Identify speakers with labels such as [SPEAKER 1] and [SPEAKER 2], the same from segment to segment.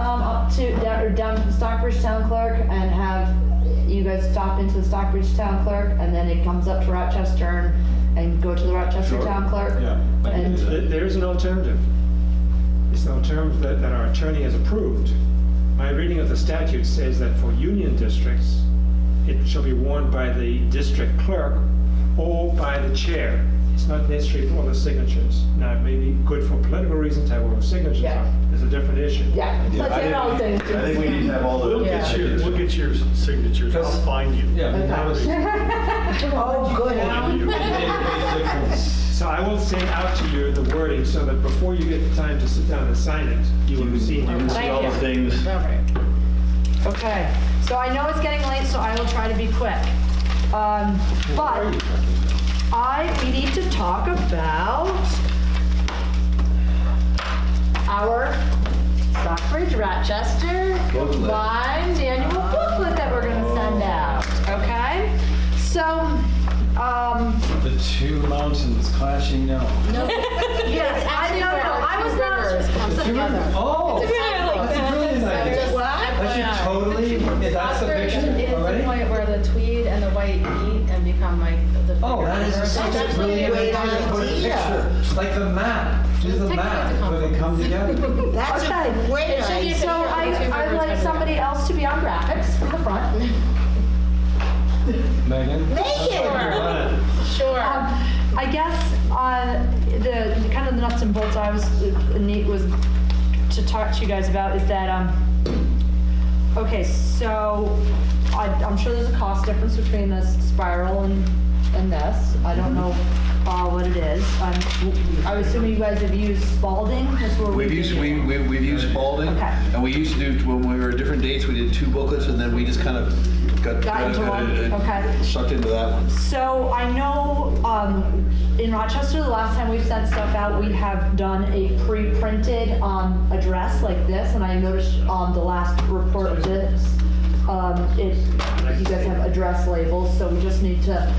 [SPEAKER 1] um, up to, down, or down to the Stockbridge Town Clerk and have you guys stop into the Stockbridge Town Clerk and then it comes up to Rochester and, and go to the Rochester
[SPEAKER 2] Sure.
[SPEAKER 1] Town Clerk?
[SPEAKER 2] Yeah.
[SPEAKER 3] But
[SPEAKER 1] And-
[SPEAKER 3] it's-
[SPEAKER 2] There there is an alternative. It's an alternative that, that our attorney has approved. My reading of the statute says that for union districts, it shall be warned by the district clerk or by the chair. It's not necessary for all the signatures. Now, it may be good for political reasons to have all the signatures
[SPEAKER 1] Yeah.
[SPEAKER 2] on. It's a different issue.
[SPEAKER 1] Yeah,
[SPEAKER 4] Yeah,
[SPEAKER 1] let's
[SPEAKER 4] I
[SPEAKER 1] hear it
[SPEAKER 4] think-
[SPEAKER 1] all then.
[SPEAKER 4] I think we need to have all the.
[SPEAKER 5] We'll get your,
[SPEAKER 4] signatures.
[SPEAKER 5] we'll get your signatures, I'll find you.
[SPEAKER 6] Yeah.
[SPEAKER 1] Oh, good.
[SPEAKER 2] So I will send out to you the wording so that before you get the time to sit down and sign it, you will see.
[SPEAKER 4] You can see all the things.
[SPEAKER 1] All right. Okay, so I know it's getting late, so I will try to be quick. Um, But I, we need to talk about our Stockbridge Rochester
[SPEAKER 4] Booklet.
[SPEAKER 1] Limes annual booklet that we're gonna send out, okay? So, um,
[SPEAKER 6] The two mountains clashing now.
[SPEAKER 1] yes, I
[SPEAKER 7] actually
[SPEAKER 1] know,
[SPEAKER 7] where our
[SPEAKER 1] I was
[SPEAKER 7] two rivers
[SPEAKER 1] not.
[SPEAKER 7] come
[SPEAKER 6] Two
[SPEAKER 7] together.
[SPEAKER 6] rivers. Oh, that's a brilliant idea. I should totally, is that the picture
[SPEAKER 7] It's the
[SPEAKER 6] already?
[SPEAKER 7] point where the tweed and the white meet and become like the.
[SPEAKER 6] Oh, that is
[SPEAKER 7] bigger
[SPEAKER 6] such
[SPEAKER 7] version.
[SPEAKER 6] a brilliant
[SPEAKER 8] great
[SPEAKER 6] idea to put a
[SPEAKER 8] idea.
[SPEAKER 6] picture, like the map, do the
[SPEAKER 7] Technically, it's
[SPEAKER 6] map,
[SPEAKER 7] a
[SPEAKER 6] where they come together.
[SPEAKER 8] That's a great
[SPEAKER 7] It should be a
[SPEAKER 8] idea.
[SPEAKER 1] So
[SPEAKER 7] picture of
[SPEAKER 1] I,
[SPEAKER 7] the two
[SPEAKER 1] I'd
[SPEAKER 7] rivers
[SPEAKER 1] like
[SPEAKER 7] everywhere.
[SPEAKER 1] somebody else to be on graphics from the front.
[SPEAKER 6] Megan?
[SPEAKER 8] Make it!
[SPEAKER 7] Sure.
[SPEAKER 1] Um, I guess uh, the, the kind of the nuts and bolts I was uh, Nate was to talk to you guys about is that um, okay, so I, I'm sure there's a cost difference between this spiral and and this. I don't know uh, what it is. Um, I'm, I'm assuming you guys have used Spalding. That's where
[SPEAKER 4] We've
[SPEAKER 1] did
[SPEAKER 4] used,
[SPEAKER 1] it.
[SPEAKER 4] we, we- we've used Spalding,
[SPEAKER 1] Okay.
[SPEAKER 4] and we used to do, when we were at different dates, we did two booklets, and then we just kind of got. uh,
[SPEAKER 1] Got into one,
[SPEAKER 4] and- and
[SPEAKER 1] okay.
[SPEAKER 4] Sucked into that one.
[SPEAKER 1] So I know um, in Rochester, the last time we've sent stuff out, we have done a pre-printed um, address like this, and I noticed on the last report of this, um, it, you guys have address labels, so we just need to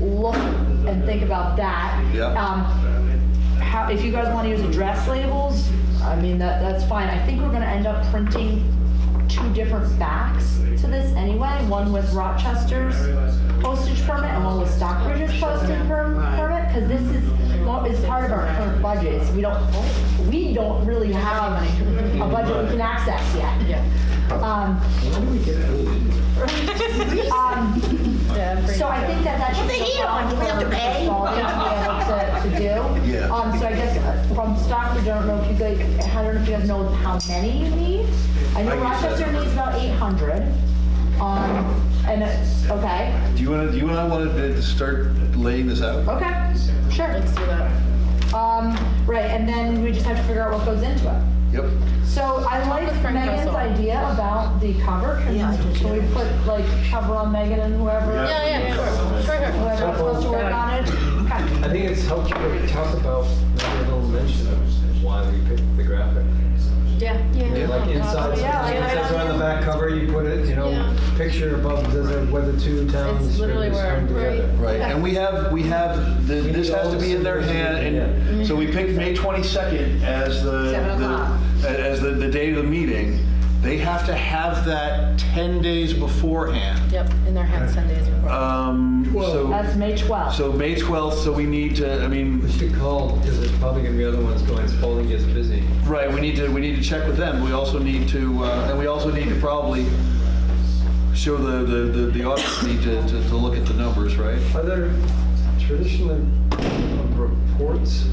[SPEAKER 1] look and think about that.
[SPEAKER 4] Yeah.
[SPEAKER 1] Um, how, if you guys want to use address labels, I mean, that, that's fine. I think we're gonna end up printing two different backs to this anyway, one with Rochester's postage permit and one with Stockbridge's postage per- permit, because this is, well, it's part of our current budget, so we don't, we don't really have a budget we can access yet.
[SPEAKER 7] Yeah.
[SPEAKER 1] Um, um,
[SPEAKER 7] Yeah, I'm pretty
[SPEAKER 1] so I
[SPEAKER 7] sure.
[SPEAKER 1] think that that should.
[SPEAKER 8] Put the
[SPEAKER 1] be
[SPEAKER 8] heat on,
[SPEAKER 1] for-
[SPEAKER 8] we have to
[SPEAKER 1] for
[SPEAKER 8] pay.
[SPEAKER 1] Spalding to be able to, to do.
[SPEAKER 4] Yeah.
[SPEAKER 1] Um, so I guess uh, from Stockbridge, I don't know if you guys, I don't know if you guys know how many you need. I know
[SPEAKER 4] I guess
[SPEAKER 1] Rochester
[SPEAKER 4] that's-
[SPEAKER 1] needs about eight hundred. Um, and, it- okay,
[SPEAKER 4] Do you want to, do you and I want to start laying this out?
[SPEAKER 1] okay, sure.
[SPEAKER 7] Let's do that.
[SPEAKER 1] Um, right, and then we just have to figure out what goes into it.
[SPEAKER 4] Yep.
[SPEAKER 1] So I like
[SPEAKER 7] with Frank
[SPEAKER 1] Megan's
[SPEAKER 7] Russell.
[SPEAKER 1] idea about the cover. Can
[SPEAKER 8] Yeah, I do
[SPEAKER 1] can we put like cover on Megan and whoever?
[SPEAKER 7] Yeah, yeah, sure, sure, sure.
[SPEAKER 1] Whoever else wants to work on it? Okay.
[SPEAKER 6] I think it's helpful to talk about, maybe a little mention of why we picked the graphic.
[SPEAKER 7] Yeah.
[SPEAKER 6] Yeah, Like inside,
[SPEAKER 1] Yeah, like-
[SPEAKER 6] it says on the back cover, you put it, you know,
[SPEAKER 7] Yeah.
[SPEAKER 6] picture above, does it, where the two towns.
[SPEAKER 7] It's literally
[SPEAKER 6] really
[SPEAKER 7] where-
[SPEAKER 6] come together.
[SPEAKER 4] Right, and we have, we have, the- this has to be in their hand, and so we picked May 22nd as the.
[SPEAKER 1] Seven
[SPEAKER 4] the-
[SPEAKER 1] o'clock.
[SPEAKER 4] As the, the day of the meeting. They have to have that 10 days beforehand.
[SPEAKER 7] Yep, in their hands ten days before.
[SPEAKER 4] Um, so,
[SPEAKER 1] That's May 12th.
[SPEAKER 4] so May 12th, so we need to, I mean,
[SPEAKER 6] We should call, because there's probably gonna be other ones going, Spalding gets busy.
[SPEAKER 4] Right, we need to, we need to check with them. We also need to, uh, and we also need to probably show the, the, the- the audience need to, to to look at the numbers, right?
[SPEAKER 6] Are there traditional reports?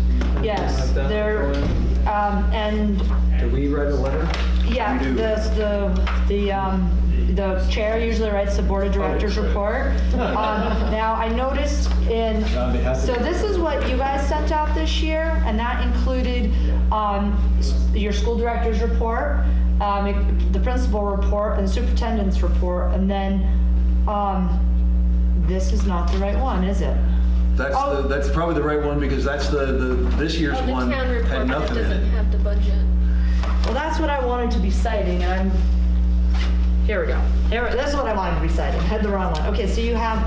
[SPEAKER 1] Yes,
[SPEAKER 6] Like that
[SPEAKER 1] there,
[SPEAKER 6] before?
[SPEAKER 1] um, and,
[SPEAKER 6] Do we write a letter?
[SPEAKER 1] yeah,
[SPEAKER 4] We do.
[SPEAKER 1] the, the, the, um, the chair usually writes the board of directors
[SPEAKER 6] right.
[SPEAKER 1] report. Um, Now, I noticed in,
[SPEAKER 6] On behalf of-
[SPEAKER 1] so this is what you guys sent out this year, and that included, um, s- your school director's report, um, it- the principal report, and superintendent's report, and then, um, this is not the right one, is it?
[SPEAKER 4] That's, the- that's probably the right one because that's the, the, this
[SPEAKER 7] Oh,
[SPEAKER 4] year's one had nothing in it.
[SPEAKER 7] have the budget.
[SPEAKER 1] Well, that's what I wanted to be citing, and I'm, here we go. Here, that's what I wanted to be citing, had the wrong one. Okay, so you have,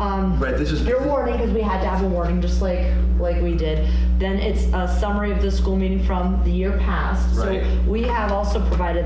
[SPEAKER 1] um,
[SPEAKER 4] Right, this is.
[SPEAKER 1] your warning, because we had to have a warning, just like, like we did. Then it's a summary of the school meeting from the year past.
[SPEAKER 4] Right.
[SPEAKER 1] So we have also provided